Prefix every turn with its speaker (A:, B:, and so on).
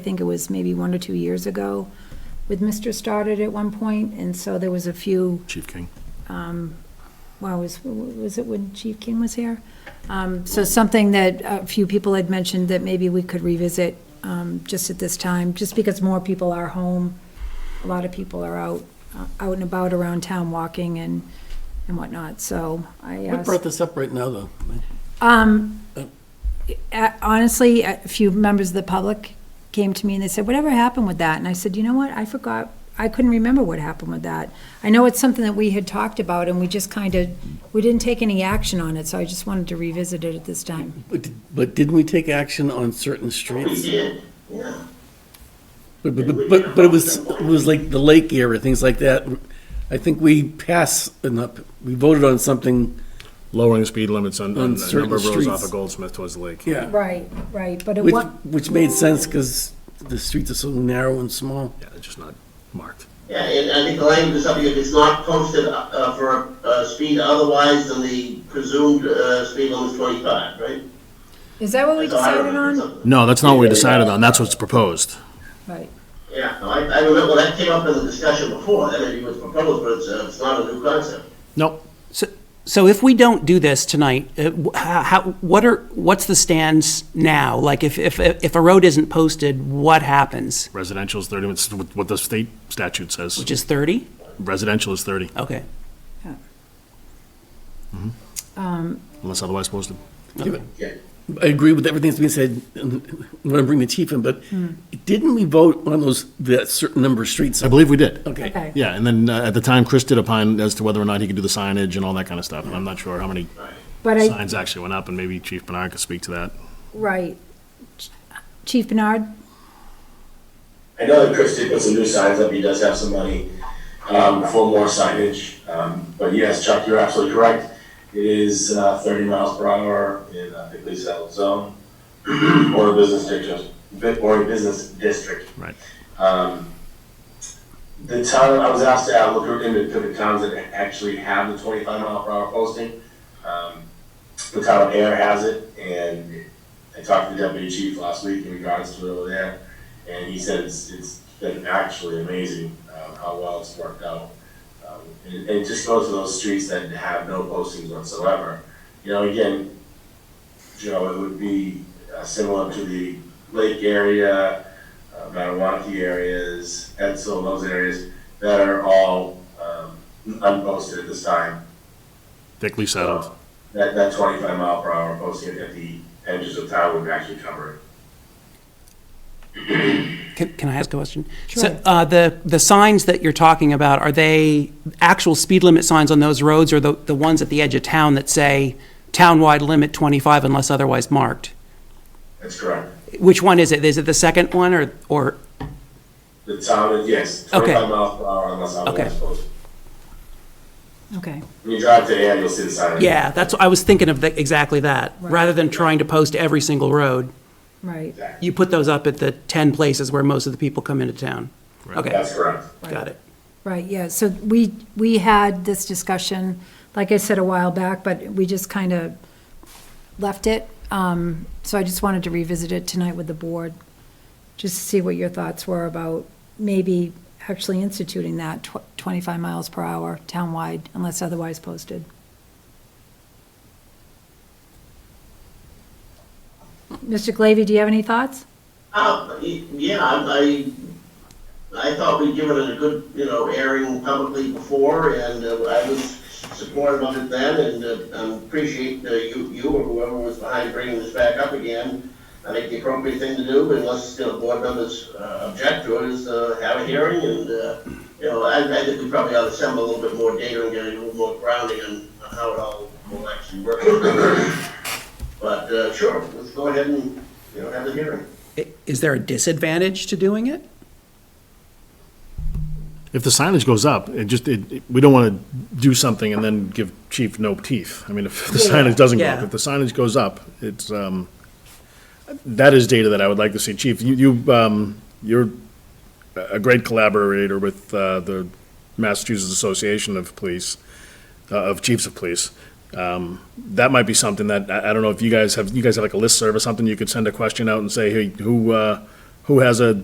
A: I think it was maybe one or two years ago with Mr. Stoddard at one point, and so there was a few,
B: Chief King.
A: well, was, was it when Chief King was here? Um, So something that a few people had mentioned that maybe we could revisit um, just at this time, just because more people are home. A lot of people are out, uh, out and about around town walking and, and whatnot, so I
B: What
A: asked.
B: brought this up right now, though?
A: uh, honestly, a few members of the public came to me and they said, whatever happened with that? And I said, you know what, I forgot, I couldn't remember what happened with that. I know it's something that we had talked about and we just kind of, we didn't take any action on it, so I just wanted to revisit it at this time.
B: But but didn't we take action on certain streets? But, but, but, but it was, it was like the lake area, things like that. I think we passed enough, we voted on something,
C: lowering speed limits on,
B: On
C: on a
B: certain
C: number of roads off
B: streets.
C: of Goldsmith towards the lake.
B: yeah,
A: Right, right, but it
B: which,
A: was,
B: which made sense because the streets are so narrow and small.
C: Yeah, it's just not marked.
D: Yeah, and I think the language is something, if it's not posted uh, for a speed otherwise than the presumed uh, speed limit is 25, right?
A: is that what we
D: So I
A: decided
D: remember
A: on?
D: something.
C: No, that's not what we decided on. That's what's proposed.
A: Right,
D: Yeah, no, I, I remember that came up in the discussion before, that maybe was proposed, but it's, uh, it's not a new concept.
C: Nope.
E: So, so if we don't do this tonight, uh, wh- how, how- what are, what's the stance now? Like, if, if, if a road isn't posted, what happens?
C: Residential is 30, it's what what the state statute says.
E: Just 30?
C: Residential is 30,
E: Okay.
C: unless otherwise posted.
B: I agree with everything that's being said, and I'm gonna bring the chief in, but didn't we vote on those, that certain number of streets?
C: I believe we did.
B: Okay.
A: okay,
C: Yeah, and then uh, at the time, Chris did opine as to whether or not he could do the signage and all that kind of stuff. And I'm not sure how many
A: but I,
C: signs actually went up, and maybe Chief Bernard could speak to that.
A: right. Chief Bernard?
F: I know that Chris did put some new signs up, he does have some money, um, for more signage, um, but yes, Chuck, you're absolutely correct. It is, uh, thirty miles per hour in, uh, I think, least settled zone, or a business district, or a business district.
C: Right.
F: Um, the town, I was asked to uh, look into the towns that actually have the twenty-five mile per hour posting. Um, the town of Air has it, and I talked to the deputy chief last week in regards to it over there. And he said it's, it's been actually amazing, um, how well it's worked out. Um, and it- it just goes to those streets that have no postings whatsoever. You know, again, Joe, it would be uh, similar to the lake area, uh, Matawanaki areas, Edsel, those areas that are all, um, unposted at this time.
C: Thickly settled.
F: That, that twenty-five mile per hour posting at the edges of town would actually cover it.
E: Can, can I ask a question?
A: Sure.
E: So, uh, the, the signs that you're talking about, are they actual speed limit signs on those roads or the, the ones at the edge of town that say townwide limit 25 unless otherwise marked?
F: That's correct.
E: Which one is it? Is it the second one or, or,
F: The town, is- yes,
E: Okay.
F: twenty-five miles per hour unless
E: Okay.
F: otherwise posted.
A: Okay,
F: When you drive to Ann, you'll see the sign.
E: yeah, that's, I was thinking of the- exactly that. Rather than trying to post every single road.
A: right,
E: You put those up at the 10 places where most of the people come into town? Okay,
F: That's correct.
E: got it.
A: right, yeah, so we, we had this discussion, like I said a while back, but we just kind of left it. Um, So I just wanted to revisit it tonight with the board, just to see what your thoughts were about maybe actually instituting that tw- 25 miles per hour townwide unless otherwise posted. Mr. Glavy, do you have any thoughts?
D: Uh, y- yeah, I, I I thought we'd given it a good, you know, airing publicly before, and uh, I was supportive of it then, and uh, um, appreciate uh, you, you or whoever was behind bringing this back up again. I think the appropriate thing to do, unless, you know, board members uh, object to it, is uh, have a hearing, and, uh, you know, I, I think we probably ought to assemble a little bit more data and get a little more grounding on on how it all will actually work. But, uh, sure, let's go ahead and, you know, have the hearing.
E: I- Is there a disadvantage to doing it?
C: If the signage goes up, it just, it, it- we don't want to do something and then give chief no teeth. I mean, if the signage doesn't go up,
E: Yeah.
C: if the signage goes up, it's, um, that is data that I would like to see. Chief, you, you, um, you're a great collaborator with, uh, the Massachusetts Association of Police, uh, of Chiefs of Police. Um, that might be something that, I, I don't know if you guys have, you guys have like a listserv or something, you could send a question out and say, hey, who, uh, who- who has a